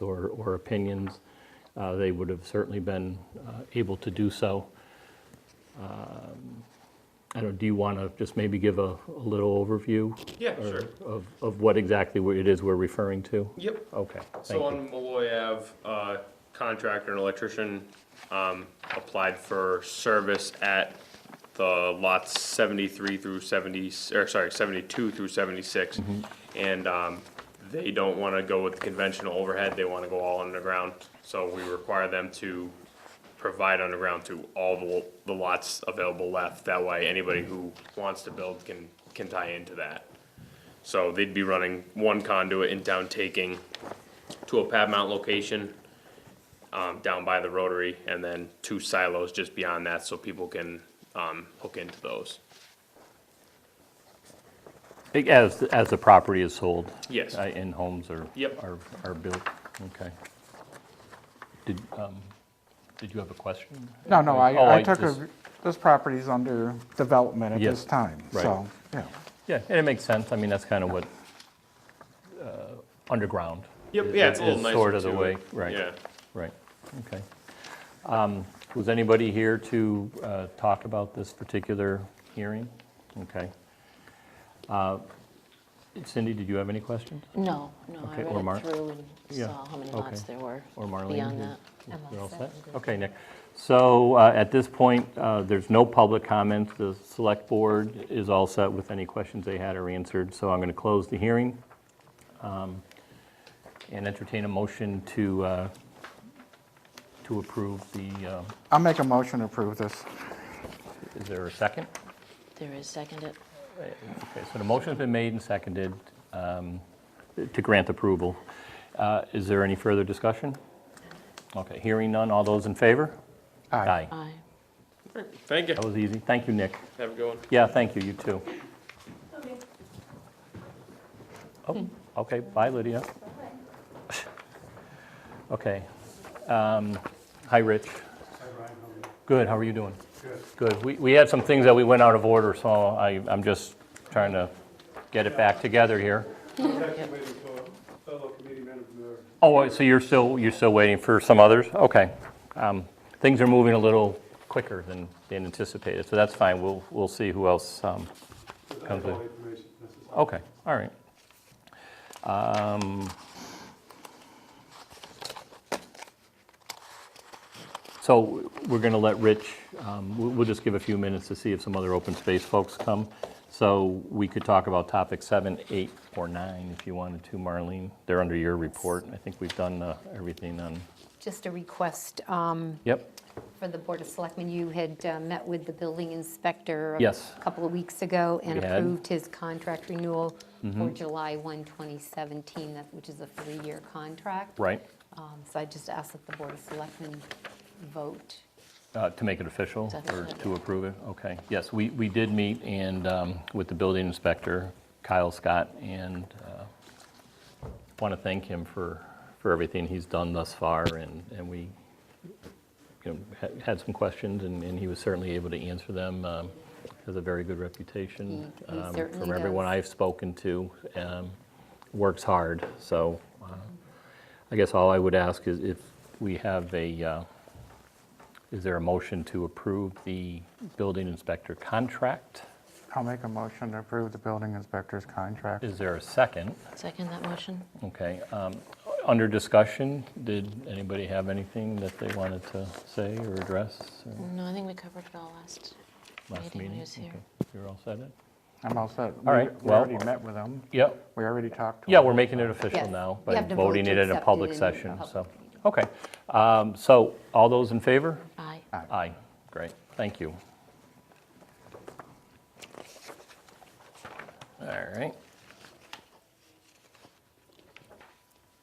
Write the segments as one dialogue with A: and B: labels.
A: or, or opinions, uh, they would have certainly been uh, able to do so. Um, I don't, do you want to just maybe give a, a little overview?
B: Yeah,
A: or-
B: sure.
A: Of, of what exactly we- it is we're referring to?
B: Yep.
A: Okay, thank
B: So
A: you.
B: on Malloy Ave, uh, contractor and electrician, um, applied for service at the lots seventy-three through seventy, or sorry, seventy-two through seventy-six.
A: Mm-hmm.
B: And, um, they don't wanna go with conventional overhead, they wanna go all underground. So we require them to provide underground to all the, the lots available left. That way, anybody who wants to build can, can tie into that. So they'd be running one conduit in town taking to a pad mount location um, down by the rotary, and then two silos just beyond that, so people can um, hook into those.
A: As, as the property is sold?
B: Yes.
A: uh, And homes are?
B: Yep.
A: Are, are built, okay. Did, um, did you have a question?
C: No, no,
A: Oh,
C: I, I
A: I
C: took
A: just-
C: a, this property's under development at
A: Yes,
C: this time,
A: right.
C: so, yeah.
A: Yeah, and it makes sense, I mean, that's kind of what, uh, underground.
B: Yep,
A: is-
B: yeah, it's a
A: is
B: little nicer
A: Sort of the
B: too.
A: way, right.
B: Yeah.
A: Right, okay. Um, Was anybody here to uh, talk about this particular hearing? Okay. Uh, Cindy, did you have any questions?
D: No, no, I
A: Okay, or
D: read
A: Mark?
D: it through and
A: Yeah,
D: saw how many
A: okay.
D: lots there were
A: Or Marlene?
D: beyond
A: did-
D: that.
A: You're all set? Okay, Nick. So uh, at this point, uh, there's no public comments. The select board is all set with any questions they had are answered, so I'm going to close the hearing um, and entertain a motion to, uh, to approve the, uh,
C: I'll make a motion to approve this.
A: is there a second?
D: There is seconded.
A: Okay, so the motion's been made and seconded um, to grant approval. Uh, Is there any further discussion? Okay, hearing none. All those in favor?
C: Aye.
D: Aye.
B: Thank you.
A: That was easy. Thank you, Nick.
B: Have a good one.
A: Yeah, thank you, you too. Oh, okay, bye Lydia. Okay. um, Hi, Rich. Good, how are you doing? Good. We we had some things that we went out of order, so I- I'm just trying to get it back together here.
E: Actually waiting for fellow committee member Miller.
A: Oh, so you're still, you're still waiting for some others? Okay. Um, Things are moving a little quicker than than anticipated, so that's fine. We'll we'll see who else um,
E: I
A: Comes
E: have all
A: in.
E: the information necessary.
A: Okay, all right. Um, So we're going to let Rich, um, we- we'll just give a few minutes to see if some other open space folks come. So we could talk about topic seven, eight, or nine if you wanted to, Marlene. They're under your report. I think we've done uh, everything on,
F: Just a request um,
A: yep,
F: for the Board of Selectmen. You had uh, met with the building inspector.
A: Yes.
F: A couple of weeks ago and
A: We had. Mm-hmm.
F: approved his contract renewal for July 1, 2017, that- which is a three-year contract.
A: right,
F: Um, So I just ask that the Board of Selectmen vote.
A: Uh, to make it official or
D: Definitely.
A: to approve it? Okay, yes, we we did meet and um, with the building inspector, Kyle Scott, and uh, want to thank him for, for everything he's done thus far, and, and we, you know, ha- had some questions, and, and he was certainly able to answer them. um, Has a very good reputation.
F: He- he
A: um,
F: certainly
A: From everyone
F: does.
A: I've spoken to, um, works hard, so uh, I guess all I would ask is if we have a, uh, is there a motion to approve the building inspector contract?
C: I'll make a motion to approve the building inspector's contract.
A: Is there a second?
D: Second that motion?
A: Okay, um, under discussion, did anybody have anything that they wanted to say or address or
D: No, I think we covered it all last
A: last
D: meeting when
A: meeting?
D: he was here.
A: Okay, You're all set then?
C: I'm all set.
A: All right,
C: We- We
A: well-
C: already met with them.
A: Yep,
C: We already talked to
A: yeah,
C: them.
A: we're making it
F: Yes,
A: official now
F: you
A: by
F: have to vote
A: voting
F: to
A: it in a
F: accept it
A: public
F: in a
A: session,
F: public
A: so.
F: meeting.
A: Okay, um, so all those in favor?
D: Aye.
A: Aye, great, thank you. All right,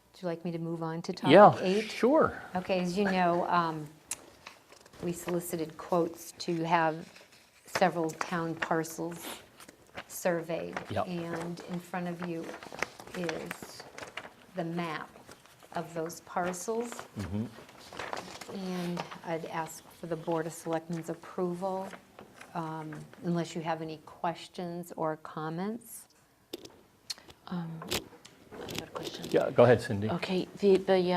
F: Would you like me to move on to topic
A: yeah,
F: eight?
A: sure.
F: Okay, as you know, um, we solicited quotes to have several town parcels surveyed.
A: Yep.
F: And in front of you is the map of those parcels. And I'd ask for the Board of Selectmen's approval, um, unless you have any questions or comments.
D: I have a question.
A: Yeah, go ahead, Cindy.
D: Okay, the, the, uh,